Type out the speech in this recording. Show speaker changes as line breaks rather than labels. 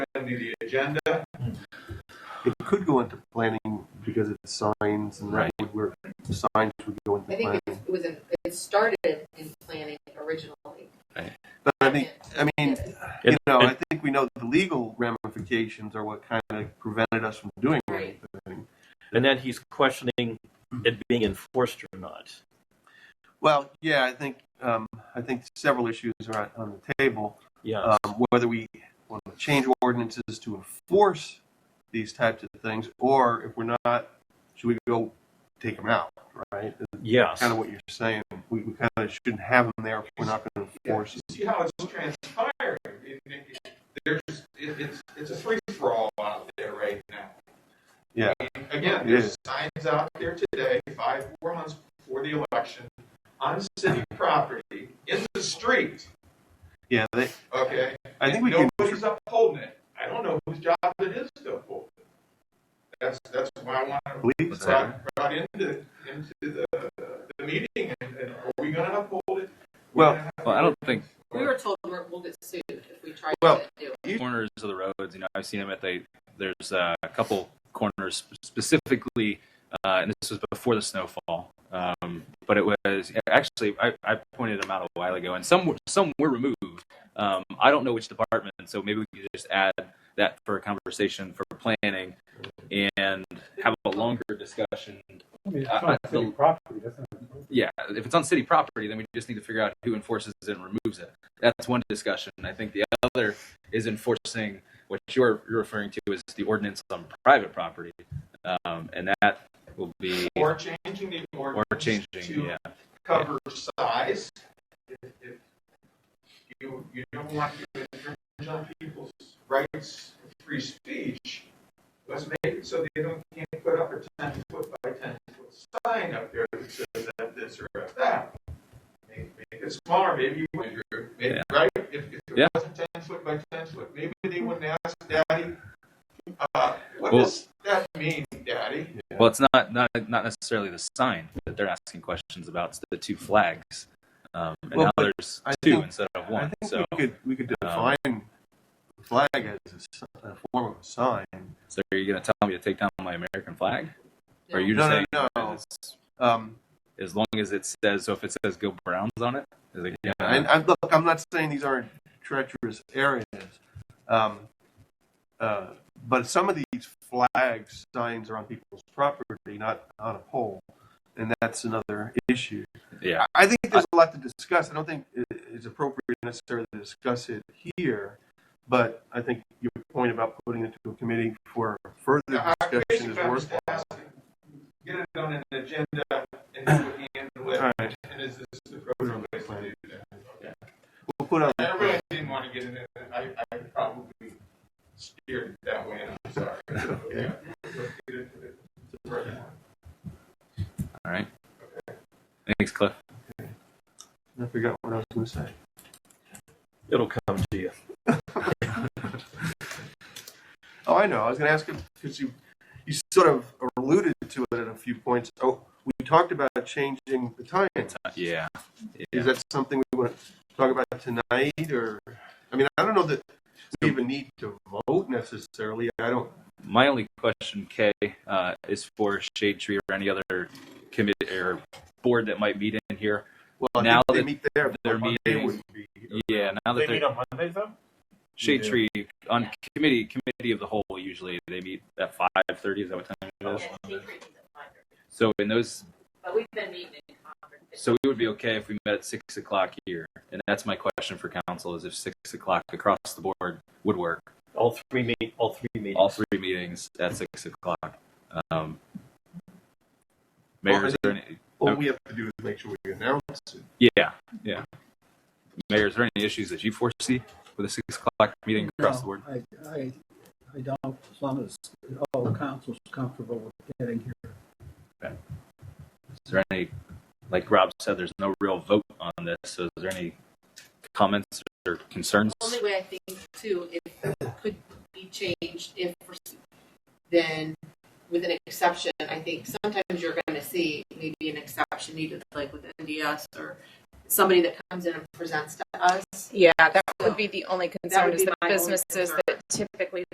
agenda.
Hmm. It could go into planning because it's signs and that would work. Signs would go into
I think
planning.
it was, in- it started in planning originally.
But I think, I mean, you
And-
know,
and-
I think we know the legal ramifications are what kind of prevented us from doing
Right.
anything.
And then he's questioning it being enforced or not.
Well, yeah, I think, um, I think several issues are on- on the table.
Yeah.
um, whether we want to change ordinances to enforce these types of things, or if we're not, should we go take them out, right? That's
Yes.
kind of what you're saying. We, we kind of shouldn't have them there if we're not going to
Yeah,
enforce
you see how it's transpiring. It- it- it- There's, it, it's, it's a free for all out there right now.
Yeah.
I mean, Again,
It
there's
is.
signs out there today, five, four months before the election, on city property, in the street,
Yeah, they,
okay?
I think we can,
Nobody's upholding it. I don't know whose job it is to uphold it. That's, that's why I want to
police
it's
that.
brought, brought into, into the, the meeting, and, and are we gonna uphold it?
Well-
We're gonna
Well, I don't think
We were told we're, we'll get sued if we try
Well,
to do it.
corners of the roads. You know, I've seen them at the. There's uh, a couple corners specifically, uh, and this was before the snowfall. Um, but it was actually I, I pointed them out a while ago, and some were- some were removed. Um, I don't know which department, so maybe we could just add that for a conversation for planning, and have a longer discussion.
I mean, it's
I-
on
I
city
feel-
property, that's not.
Yeah, if it's on city property, then we just need to figure out who enforces it and removes it. That's one discussion. I think the other is enforcing what you're you're referring to as the ordinance on private property, um, and that will be
Or changing the
or
ordinance.
changing.
To
Yeah,
cover size. If, if you, you don't want to infringe on people's rights of free speech, let's make it so they don't, can't put up a ten foot by ten foot sign up there that says that this or that that. Make, make it smaller, maybe, you would, maybe,
Yeah.
right? If, if it
Yeah.
wasn't ten foot by ten foot, maybe they wouldn't ask daddy, uh, what
Well-
does that mean, daddy?
well, it's not not not necessarily the sign that they're asking questions about. It's the two flags, um, and
Well,
now
but
there's
I
two
think-
instead of
I
one.
think
So,
we could, we could define the flag as a s- a, form of a sign.
so are you going to tell me to take down my American flag? Or are you
No,
just
no,
saying
no.
that it's-
Um,
as long as it says so if it says go browns on it is it yeah,
And I, look, I'm not saying these aren't treacherous areas, um, uh, but some of these flags, signs are on people's property, not on a pole, and that's another issue.
yeah
I- I think there's a lot to discuss. I don't think it- it's appropriate necessarily to discuss it here, but I think your point about putting it to a committee for further
Yeah, I
discussion is
basically
worthwhile.
asked to Get it on an agenda and do it handle it,
All right,
and is this the proper way to do that? Okay.
we'll put on.
I really didn't want to get into that, I, I probably steered that way, and I'm sorry. Yeah. Let's get into it. Right.
all right thanks cliff
I forgot what I was going to say.
It'll come to you.
Oh, I know. I was going to ask him because you, you sort of alluded to it at a few points. Oh, we talked about changing the time.
Uh, yeah
Is that something we want to talk about tonight, or I mean, I don't know that we even need to vote necessarily. I don't.
my only question k uh, is for shade tree or any other committee or board that might meet in here
Well, I
Now
think
that
they meet there,
they're
Monday
meeting-
wouldn't be.
yeah now that
They meet
they're
on Mondays though?
shade tree on committee committee of the whole usually they meet at 5.30 is that what time it is so in those
But we've been meeting in conference.
So we would be okay if we met at six o'clock here, and that's my question for council: is if six o'clock across the board would work,
All three meet. All three meetings.
all three meetings at six o'clock. Um, mayor, is there any?
All we have to do is make sure we announce it.
Yeah, yeah. Mayor, is there any issues that you foresee with a six o'clock meeting across the board?
I, I, I don't, as long as all council's comfortable with getting here.
Is there any? Like Rob said, there's no real vote on this. So, is there any comments or concerns?
The only way I think too, if it could be changed if, then with an exception, I think sometimes you're going to see maybe an exception needed, like with NDS or somebody that comes in and presents to us.
Yeah, that would be the only concern
would
is
be
the
my only
businesses
concern.
that typically